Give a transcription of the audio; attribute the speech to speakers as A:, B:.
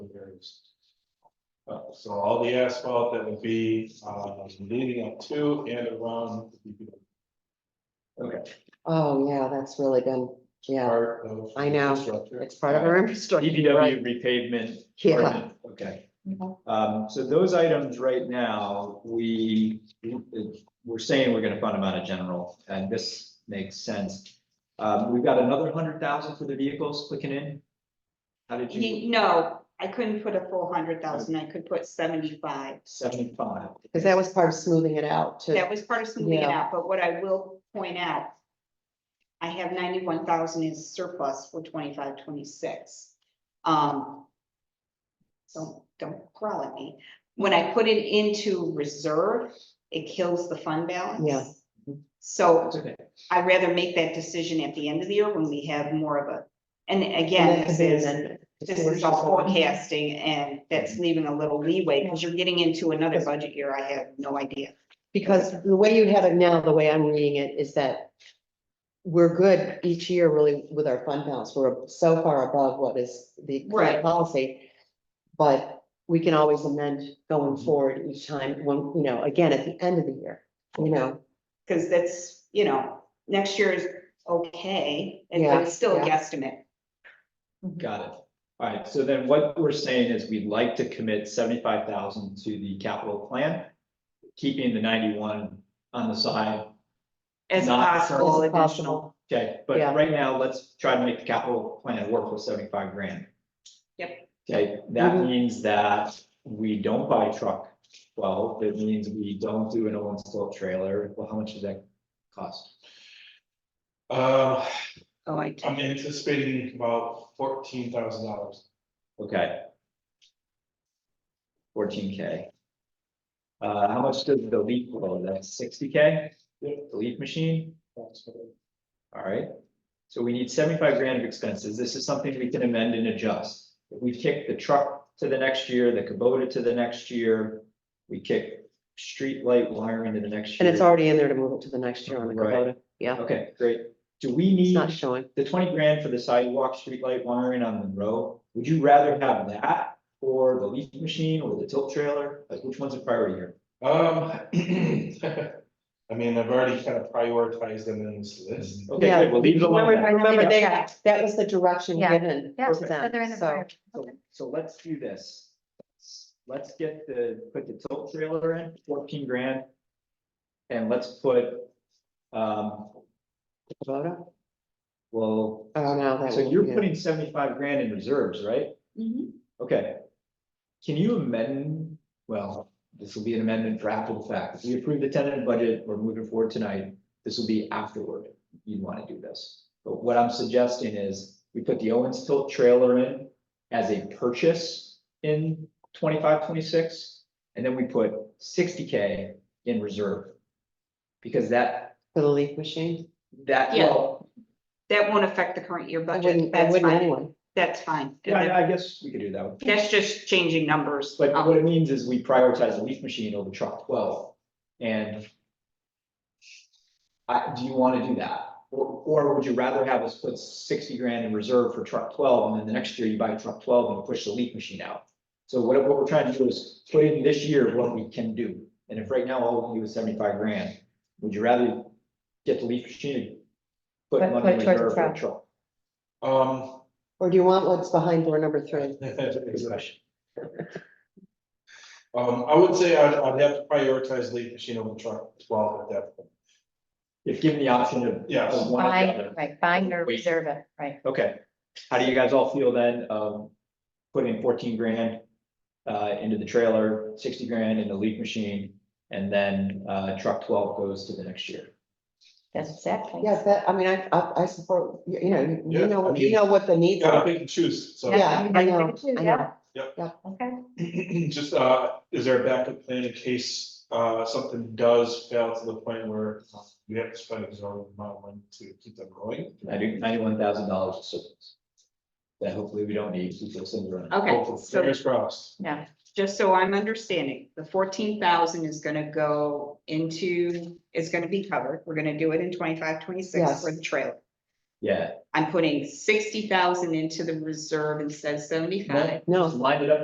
A: is. Uh, so all the asphalt that would be, uh, leading up to and around the
B: Oh, yeah, that's really good. Yeah,
A: part of.
B: I know.
A: infrastructure.
B: it's part of our infrastructure.
C: E
B: you're right.
C: DPW repavement.
B: Yeah,
C: ordinance, Okay.
D: Mhm.
C: Um, so those items right now, we, we're saying we're gonna fund them out of general, and this makes sense. Um, we've got another hundred thousand for the vehicles clicking in. How did you,
D: Ye- No, I couldn't put a full hundred thousand, I could put seventy-five.
C: seventy-five?
B: because that was part of smoothing it out
D: That
B: to,
D: was part of smoothing it
B: Yeah.
D: out, but what I will point out. I have ninety-one thousand in surplus for twenty-five, twenty-six. Um. So don't growl at me. When I put it into reserve, it kills the fund balance.
B: Yeah.
D: So
C: That's okay.
D: I'd rather make that decision at the end of the year when we have more of a, and
B: And
D: again,
B: that could
D: this
B: be
D: is.
B: amended.
D: This is all forecasting and that's leaving a little leeway because you're getting into another budget year. I have no idea.
B: Because the way you have it now, the way I'm reading it is that we're good each year really with our fund balance. We're so far above what is the
D: Right.
B: current policy. But we can always amend going forward each time, when, you know, again, at the end of the year, you know,
D: Because that's, you know, next year is okay, and
B: Yeah,
D: it's still a
B: yeah.
D: guesstimate.
C: Got it. All right, so then what we're saying is we'd like to commit seventy-five thousand to the capital plan, keeping the ninety-one on the side.
D: As
C: Not
D: possible
B: As possible.
D: additional.
C: Okay, but
B: Yeah.
C: right now, let's try to make the capital plan work with seventy-five grand.
D: Yep.
C: Okay, that
B: Mhm.
C: means that we don't buy truck twelve, it means we don't do an old installed trailer, well, how much does that cost?
A: Uh,
D: Oh, I
A: I'm anticipating about fourteen thousand dollars.
C: Okay. Fourteen K. Uh, how much does the leaf blow, that's sixty K?
A: Yeah.
C: The leaf machine, all right, so we need seventy-five grand of expenses, this is something we can amend and adjust. If we kick the truck to the next year, the Kubota to the next year, we kick street light wiring to the next year.
B: and it's already in there to move it to the next year on the
C: Right.
B: Kubota. Yeah,
C: Okay, great, do we
B: it's
C: need
B: not showing.
C: the twenty grand for the sidewalk, street light wiring on Monroe? Would you rather have that or the leaf machine or the tilt trailer, like which one's a priority here?
A: Um, I mean, I've already kind of prioritized them in this list.
C: Okay,
B: Yeah.
C: good, we'll leave it alone.
B: Remember,
C: then.
B: remember they,
E: Yeah.
B: that was the direction
E: Yeah.
B: given
E: Yeah,
B: to
E: so
B: them,
E: they're in the
B: so.
E: prior.
C: So, so let's do this. Let's- Let's get the, put the tilt trailer in, fourteen grand. And let's put, um,
B: Kubota?
C: well,
B: Oh, no, that.
C: so
B: would-
C: you're
B: yeah.
C: putting seventy-five grand in reserves, right?
D: Mm-hmm.
C: Okay. Can you amend, well, this will be an amendment for after the fact. If we approve the tentative budget, we're moving forward tonight. This will be afterward. You'd want to do this. But what I'm suggesting is we put the Owens tilt trailer in as a purchase in 25, 26, And then we put sixty K in reserve. Because that,
B: For the leaf machine?
C: that,
D: Yeah.
C: well,
D: That won't affect the current year
B: I
D: budget.
B: wouldn't, I
D: That's
B: wouldn't
D: fine.
B: anyway.
D: That's fine.
C: yeah, I I guess we could do that. one.
D: That's just changing numbers.
C: But
D: Um,
C: what it means is we prioritize the leaf machine over truck twelve and. I, do you wanna do that? Or, or would you rather have us put sixty grand in reserve for truck twelve and then the next year you buy truck twelve and push the leaf machine out? So what, what we're trying to do is put in this year what we can do. And if right now all we do is seventy-five grand, would you rather get the leaf machine? Put
E: But
C: money in
E: put towards
C: reserve for
E: truck.
C: truck?
B: Mm-hmm.
A: Um,
B: Or do you want what's behind door number three?
C: Good
A: exactly.
C: question.
A: Um, I would say I'd, I'd have to prioritize leaf machine over truck twelve at that point.
C: If given the option of.
A: Yes.
C: of one or the other.
E: Buying, right, buying or
C: Wait.
E: reserve it, right.
C: Okay, how do you guys all feel then, um, putting fourteen grand uh, into the trailer, sixty grand in the leak machine, and then, uh, truck twelve goes to the next year?
E: That's exactly.
B: Yes, that, I mean, I, I, I support, you you know, you-
A: Yeah,
B: you know,
A: I
B: you
A: mean-
B: know what the
A: You
B: needs
A: gotta
B: are.
A: pick and choose, so.
B: Yeah, I know,
E: I do,
B: I
E: yeah.
B: know.
E: Okay,
A: Just, uh, is there a backup plan in case, uh, something does fail to the point where we have to spend a zero amount of money to keep them going?
C: Ninety, ninety-one thousand dollars of surplus. That hopefully we don't need, keep those things running.
D: Okay,
A: Hopefully,
D: so-
A: Fingers crossed.
E: yeah,
D: just so I'm understanding, the fourteen thousand is gonna go into, is gonna be covered. We're gonna do it in twenty-five, twenty-six
B: Yes.
D: for the trailer.
C: Yeah,
D: I'm putting sixty thousand into the reserve instead of seventy-five.
B: No,
C: line it up